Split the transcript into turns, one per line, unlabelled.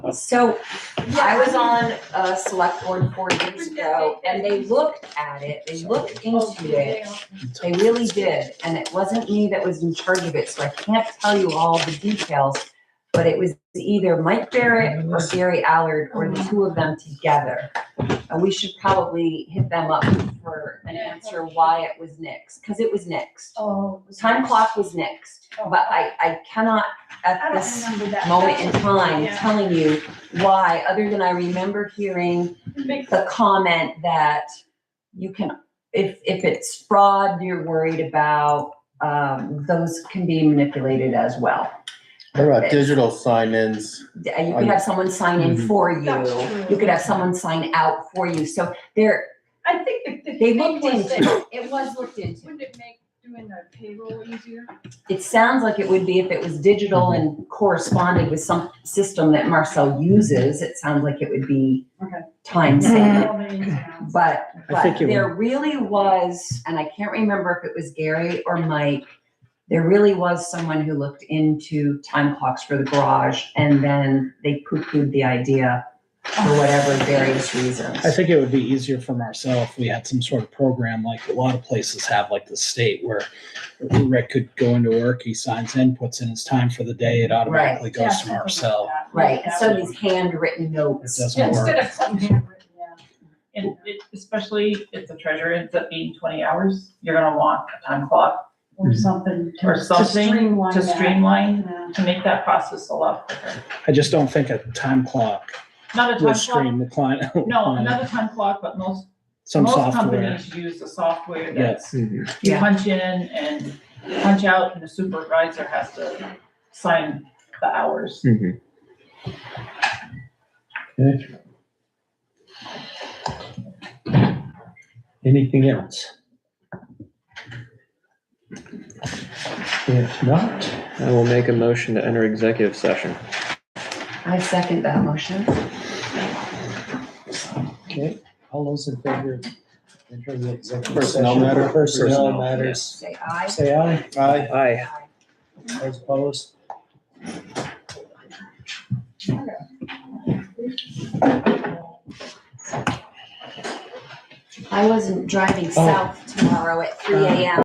So I
Yeah.
was on a select board four years ago and they looked at it, they looked
Oh,
into it. They really did, and it wasn't me that was in charge of it, so I can't tell you all the details. But it was either Mike Barrett or Gary Allard or the two of them together. And we should probably hit them up for an answer why it was nixed, because it was nixed.
Oh.
Time clock was nixed, but I, I cannot at
I
this
don't remember that.
moment in time
Yeah.
telling you why, other than I remember hearing
Makes
the
sense.
comment that you can, if, if it's fraud, you're worried about, um, those can be manipulated as well.
What about digital sign-ins?
Uh, You could have someone sign in for you.
That's true.
You could have someone sign out for you. So there,
I think the, the
they
thing
looked
was
into,
that,
it. it was looked into.
wouldn't it make doing the payroll easier?
It sounds like it would be if it was digital and corresponded with some system that Marcel uses, it sounds like it would be
Okay.
time saving.
All the ins and outs.
Mm-hmm. But,
I
but
think it
there really was, and I can't remember if it was Gary or Mike, there really was someone who looked into time clocks for the garage and then they poo-pooed the idea for whatever various reasons.
I think it would be easier for Marcel if we had some sort of program like a lot of places have, like the state where Rick could go into work, he signs in, puts in his time for the day, it automatically
Yeah,
goes to
something like
Marcel.
that.
Right,
That
so
would-
these handwritten
It
notes.
doesn't work.
Instead of something handwritten, yeah.
And it, especially if the treasurer ends up being twenty hours, you're gonna want a time clock
Or something to
Or
to
something
streamline
to
that.
streamline,
Yeah.
to make that process a lot quicker.
I just don't think a time clock
Not a time
would
clock,
stream the client.
no, another time clock, but most,
Some
most
software. mm-hmm.
companies use the software
Yes.
that's, you
Yeah.
punch in and punch out, and the supervisor has to sign the hours.
Anything else? If not, I will make a motion to enter executive session.
I second that motion.
Okay, all those in favor? of entering the executive
Personnel
session?
matter.
Personnel
Personnel,
matters.
Say aye.
Say aye.
Aye.
Aye. Those opposed? Oh.
I wasn't driving south tomorrow at three AM.